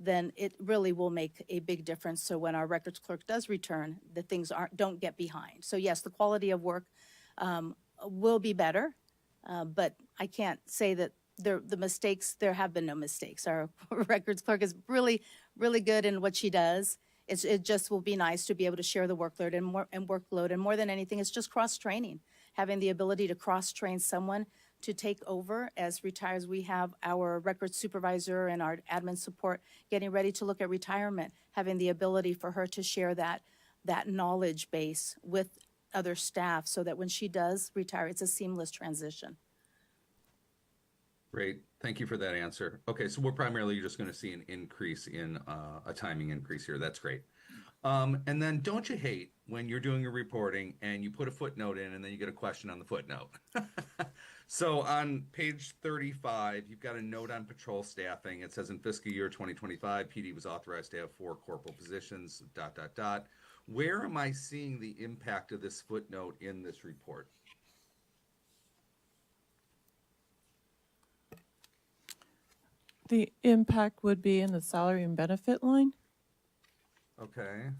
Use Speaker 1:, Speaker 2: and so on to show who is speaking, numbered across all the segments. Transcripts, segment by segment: Speaker 1: then it really will make a big difference. So when our records clerk does return, the things aren't, don't get behind. So yes, the quality of work um, will be better, uh, but I can't say that there, the mistakes, there have been no mistakes. Our records clerk is really, really good in what she does. It's, it just will be nice to be able to share the workload and more, and workload. And more than anything, it's just cross-training. Having the ability to cross-train someone to take over as retires. We have our records supervisor and our admin support getting ready to look at retirement, having the ability for her to share that, that knowledge base with other staff so that when she does retire, it's a seamless transition.
Speaker 2: Great. Thank you for that answer. Okay, so we're primarily just going to see an increase in uh, a timing increase here. That's great. Um, and then don't you hate when you're doing your reporting and you put a footnote in and then you get a question on the footnote? so on page 35, you've got a note on patrol staffing. It says in fiscal year 2025, PD was authorized to have four corporal positions, dot, dot, dot. Where am I seeing the impact of this footnote in this report?
Speaker 3: The impact would be in the salary and benefit line.
Speaker 2: Okay.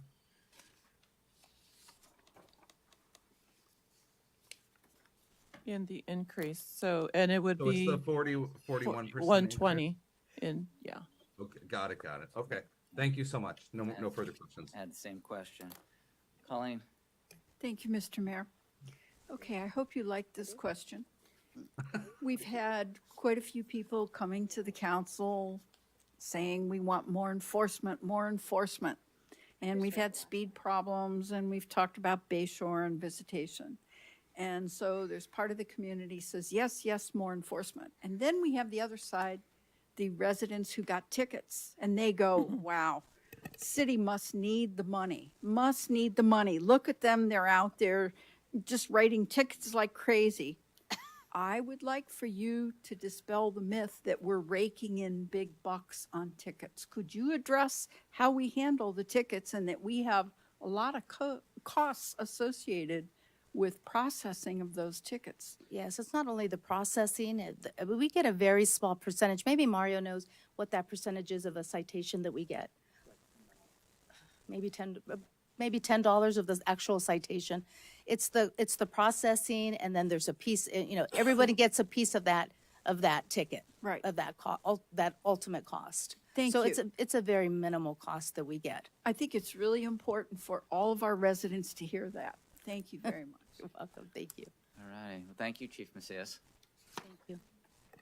Speaker 3: In the increase, so, and it would
Speaker 2: So it's
Speaker 3: be
Speaker 2: the 40, 41 percent.
Speaker 3: one twenty in, yeah.
Speaker 2: Okay, got it, got it. Okay, thank you so much. No, no further questions.
Speaker 4: I had the same question. Colleen,
Speaker 5: Thank you, Mr. Mayor. Okay, I hope you like this question. We've had quite a few people coming to the council saying we want more enforcement, more enforcement. And we've had speed problems and we've talked about Bayshore and visitation. And so there's part of the community says, yes, yes, more enforcement. And then we have the other side, the residents who got tickets and they go, wow, city must need the money, must need the money. Look at them, they're out there just writing tickets like crazy. I would like for you to dispel the myth that we're raking in big bucks on tickets. Could you address how we handle the tickets and that we have a lot of co- costs associated with processing of those tickets?
Speaker 1: Yes, it's not only the processing, it- the- uh, we get a very small percentage. Maybe Mario knows what that percentage is of a citation that we get. Maybe 10, uh, maybe $10 of the actual citation. It's the, it's the processing and then there's a piece, uh, you know, everybody gets a piece of that, of that ticket.
Speaker 5: Right.
Speaker 1: Of that co, ul- that ultimate cost.
Speaker 5: Thank
Speaker 1: So it's,
Speaker 5: you.
Speaker 1: a it's a very minimal cost that we get.
Speaker 5: I think it's really important for all of our residents to hear that. Thank you very much.
Speaker 1: You're welcome, thank you.
Speaker 4: all right. Well, thank you, Chief Macias.
Speaker 1: Thank you.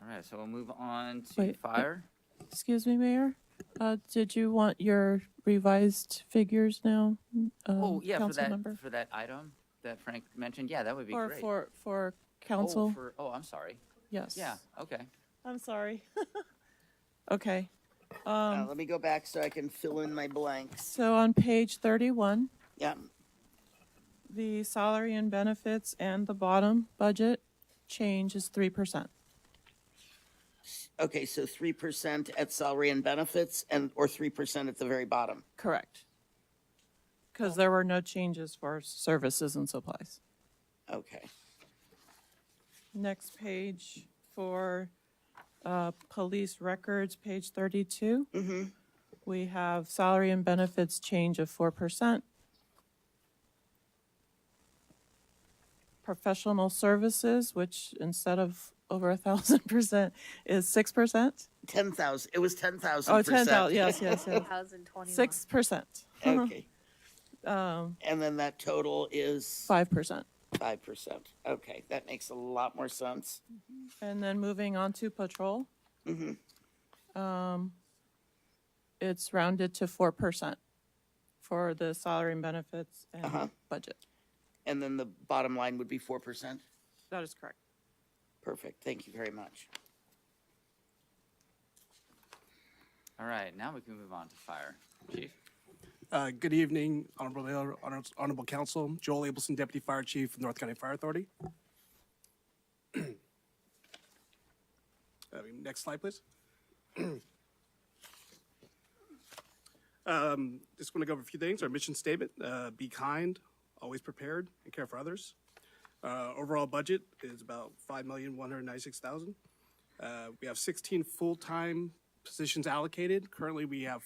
Speaker 4: All right, so we'll move on to
Speaker 3: Wait, uh,
Speaker 4: fire.
Speaker 3: Excuse me, Mayor, uh, did you want your revised figures now?
Speaker 4: Oh,
Speaker 3: um,
Speaker 4: yeah, for that
Speaker 3: Councilmember?
Speaker 4: for that item that Frank mentioned. Yeah, that would be
Speaker 3: Or
Speaker 4: great.
Speaker 3: for, for
Speaker 4: oh,
Speaker 3: council,
Speaker 4: for, oh, I'm sorry.
Speaker 3: yes.
Speaker 4: Yeah, okay.
Speaker 3: I'm sorry. Okay,
Speaker 6: Uh, let me go back so I can fill in my blanks.
Speaker 3: so on page thirty-one,
Speaker 6: Yeah,
Speaker 3: the salary and benefits and the bottom budget change is three percent.
Speaker 6: okay, so three percent at salary and benefits and, or three percent at the very bottom.
Speaker 3: Correct. Because there were no changes for services and supplies.
Speaker 6: Okay,
Speaker 3: Next page for uh, police records, page 32. We have salary and benefits change of 4%. Professional services, which instead of over a 1,000% is 6%.
Speaker 6: ten thousand, it was ten thousand uh-huh.
Speaker 3: Oh,
Speaker 6: percent.
Speaker 3: 10,000, yes, yes, yes. 6%,
Speaker 6: Okay. And then that total is
Speaker 3: 5%.
Speaker 6: five percent. Okay, that makes a lot more sense.
Speaker 3: And then moving on to patrol. Um, it's rounded to four percent for the salary and benefits and budget.
Speaker 6: And then the bottom line would be four percent.
Speaker 3: That is correct.
Speaker 6: Perfect, thank you very much.
Speaker 4: All right, now we can move on to fire. Chief,
Speaker 7: Uh, Good evening, Honorable Mayor, honor- Honorable Council. Joel Abelson, Deputy Fire Chief of North County Fire Authority. Uh, Next slide, please. Um, Just want to go over a few things. Our mission statement, uh, be kind, always prepared, and care for others. Uh, Overall budget is about $5,196,000. Uh, We have 16 full-time positions allocated. Currently, we have